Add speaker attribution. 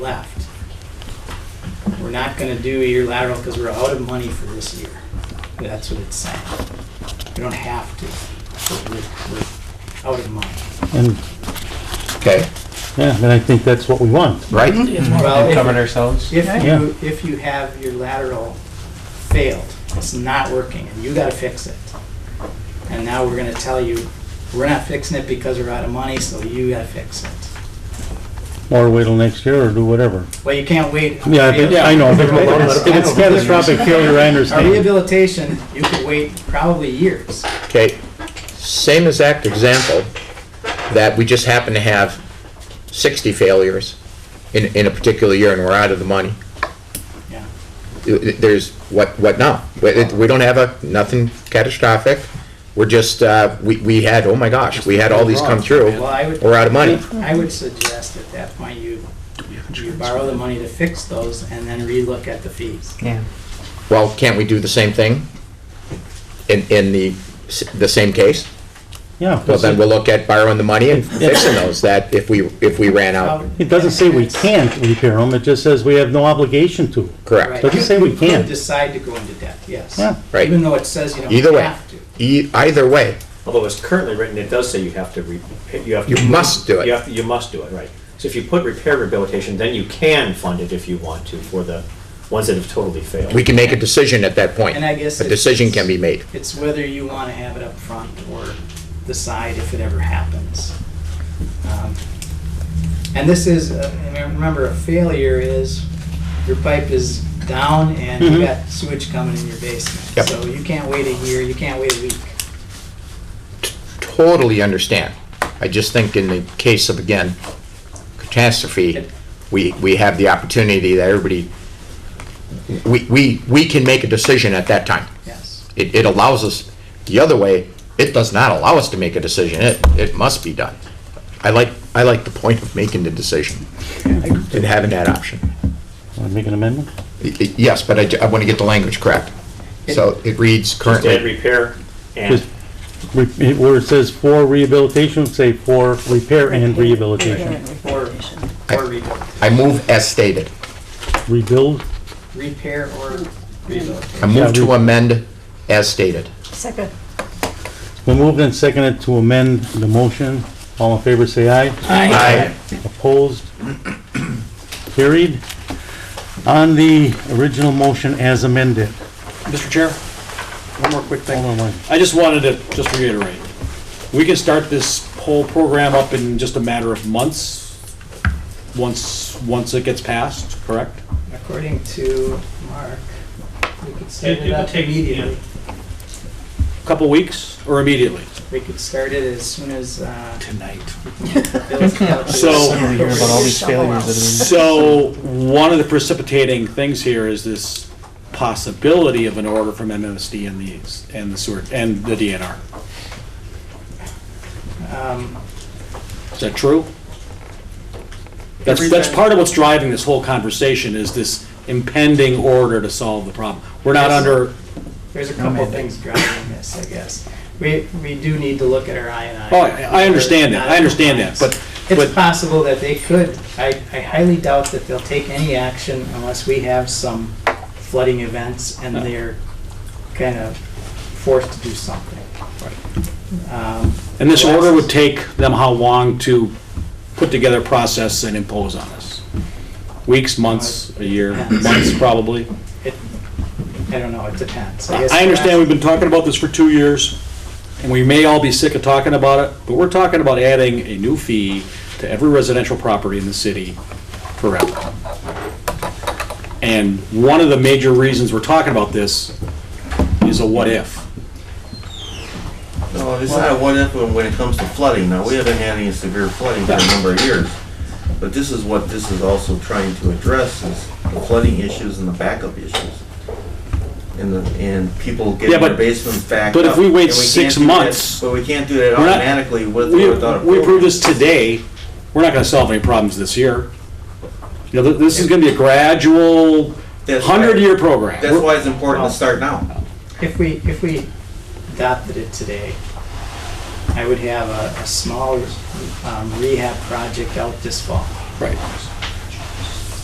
Speaker 1: left. We're not gonna do a year lateral because we're out of money for this year. That's what it's saying. We don't have to, but we're, we're out of money.
Speaker 2: And,
Speaker 3: Okay,
Speaker 2: yeah, then I think that's what we want.
Speaker 3: right?
Speaker 1: Mm-hmm. Well, if-
Speaker 4: covered ourselves.
Speaker 1: If
Speaker 2: Yeah.
Speaker 1: you, if you have your lateral failed, it's not working, and you gotta fix it. And now we're gonna tell you, we're not fixing it because we're out of money, so you gotta fix it.
Speaker 2: Or wait till next year or do whatever.
Speaker 1: Well, you can't wait.
Speaker 2: Yeah, but- I know, but if it's catastrophic failure, I
Speaker 1: Our
Speaker 2: understand.
Speaker 1: rehabilitation, you could wait probably years.
Speaker 3: Okay, same exact example, that we just happen to have 60 failures in, in a particular year and we're out of the money.
Speaker 1: Yeah.
Speaker 3: There's, what, what now? We we don't have a, nothing catastrophic. We're just, uh, we, we had, oh my gosh, we had all these come through.
Speaker 1: Well, I would.
Speaker 3: We're out of money.
Speaker 1: I would suggest at that point you, you borrow the money to fix those and then relook at the fees.
Speaker 4: Yeah.
Speaker 3: Well, can't we do the same thing in, in the, s- the same case?
Speaker 2: Yeah,
Speaker 3: Well, then we'll look at borrowing the money and fixing those that if we, if we ran out.
Speaker 2: it doesn't say we can't repair them, it just says we have no obligation to.
Speaker 1: Right.
Speaker 3: Correct.
Speaker 2: Doesn't say we
Speaker 1: You could
Speaker 2: can't.
Speaker 1: Decide to go into debt, yes.
Speaker 2: Yeah.
Speaker 3: Right.
Speaker 1: Even though it says you
Speaker 3: Either
Speaker 1: don't
Speaker 3: way,
Speaker 1: have to.
Speaker 3: E- either way,
Speaker 5: Although it's currently written, it does say you have to, re- you have to.
Speaker 3: You must do it.
Speaker 5: You have, to- you must do it, right. So if you put repair rehabilitation, then you can fund it if you want to for the ones that have totally failed.
Speaker 3: we can make a decision at that point.
Speaker 1: And I guess
Speaker 3: A
Speaker 1: it's-
Speaker 3: decision can be made.
Speaker 1: It's whether you want to have it up front or decide if it ever happens. Um, And this is, uh, I mean, remember, a failure is your pipe is down and you
Speaker 2: Mhm.
Speaker 1: got sewage coming in your basement.
Speaker 3: Yep.
Speaker 1: So you can't wait a year, you can't wait a week.
Speaker 3: Totally understand. I just think in the case of, again, catastrophe, we, we have the opportunity that everybody, we, we, we can make a decision at that time.
Speaker 1: Yes.
Speaker 3: It, it allows us, the other way, it does not allow us to make a decision. It, it must be done. I like, I like the point of making the decision and having that option.
Speaker 2: Want to make an amendment?
Speaker 3: Y- y- Yes, but I, ju- I want to get the language correct. So it reads
Speaker 5: Just add
Speaker 3: currently,
Speaker 5: repair and,
Speaker 2: Just re- it- Where it says for rehabilitation, say for repair and rehabilitation.
Speaker 1: Or, or rebuild,
Speaker 3: I move as stated.
Speaker 2: Rebuild,
Speaker 1: repair or rebuild.
Speaker 3: I move to amend as stated.
Speaker 6: Second.
Speaker 2: we moved and seconded to amend the motion. All in favor, say aye.
Speaker 3: Aye.
Speaker 2: Opposed? Carried. On the original motion as amended.
Speaker 7: Mr. Chair, one more quick
Speaker 2: Hold
Speaker 7: thing.
Speaker 2: on one.
Speaker 7: I just wanted to just reiterate, we can start this whole program up in just a matter of months, once, once it gets passed, correct?
Speaker 1: According to Mark, we could start
Speaker 8: It-
Speaker 1: it
Speaker 8: it
Speaker 1: up
Speaker 8: would take-
Speaker 1: immediately.
Speaker 7: A Couple weeks or immediately?
Speaker 1: We could start it as soon as, uh,
Speaker 4: Tonight.
Speaker 1: Bill's calculus.
Speaker 7: So-
Speaker 6: these failures
Speaker 7: So, one of the precipitating things here is this possibility of an order from MMSD and the, and the sewer, and the DNR.
Speaker 1: Um,
Speaker 7: Is that true? That's, that's
Speaker 1: Everything-
Speaker 7: part of what's driving this whole conversation, is this impending order to solve the problem. We're not
Speaker 1: Yes.
Speaker 7: under,
Speaker 1: There's a couple of things driving this, I guess. We, we do need to look at our I and I.
Speaker 7: oh, I I understand that, I understand that, but,
Speaker 1: It's
Speaker 7: but,
Speaker 1: possible that they could, I, I highly doubt that they'll take any action unless we have some flooding events and they're kind of forced to do something. Um,
Speaker 7: and this order would take them how long to put together a process and impose on us? Weeks, months, a year, months probably?
Speaker 1: it- I don't know, it depends. guess
Speaker 7: I understand we've been talking about this for two years, and we may all be sick of talking about it, but we're talking about adding a new fee to every residential property in the city forever. And one of the major reasons we're talking about this is a what if.
Speaker 9: No, it's not a what if when when it comes to flooding. Now, we haven't had any severe flooding for a number of years. But this is what this is also trying to address is the flooding issues and the backup issues. And the, and people
Speaker 7: Yeah,
Speaker 9: getting
Speaker 7: but-
Speaker 9: their basements backed
Speaker 7: but if
Speaker 9: up,
Speaker 7: we wait
Speaker 9: and can't
Speaker 7: six
Speaker 9: do that-
Speaker 7: months-
Speaker 9: But we can't do that
Speaker 7: We're not-
Speaker 9: automatically with,
Speaker 7: We
Speaker 9: without a
Speaker 7: we
Speaker 9: program.
Speaker 7: approve this today, we're not gonna solve any problems this year. You know, th- this is gonna be a gradual,
Speaker 9: That's why-
Speaker 7: hundred-year program.
Speaker 9: That's why it's important to start now.
Speaker 1: If we, if we adopted it today, I would have a, a small um, rehab project out this fall.
Speaker 7: Right.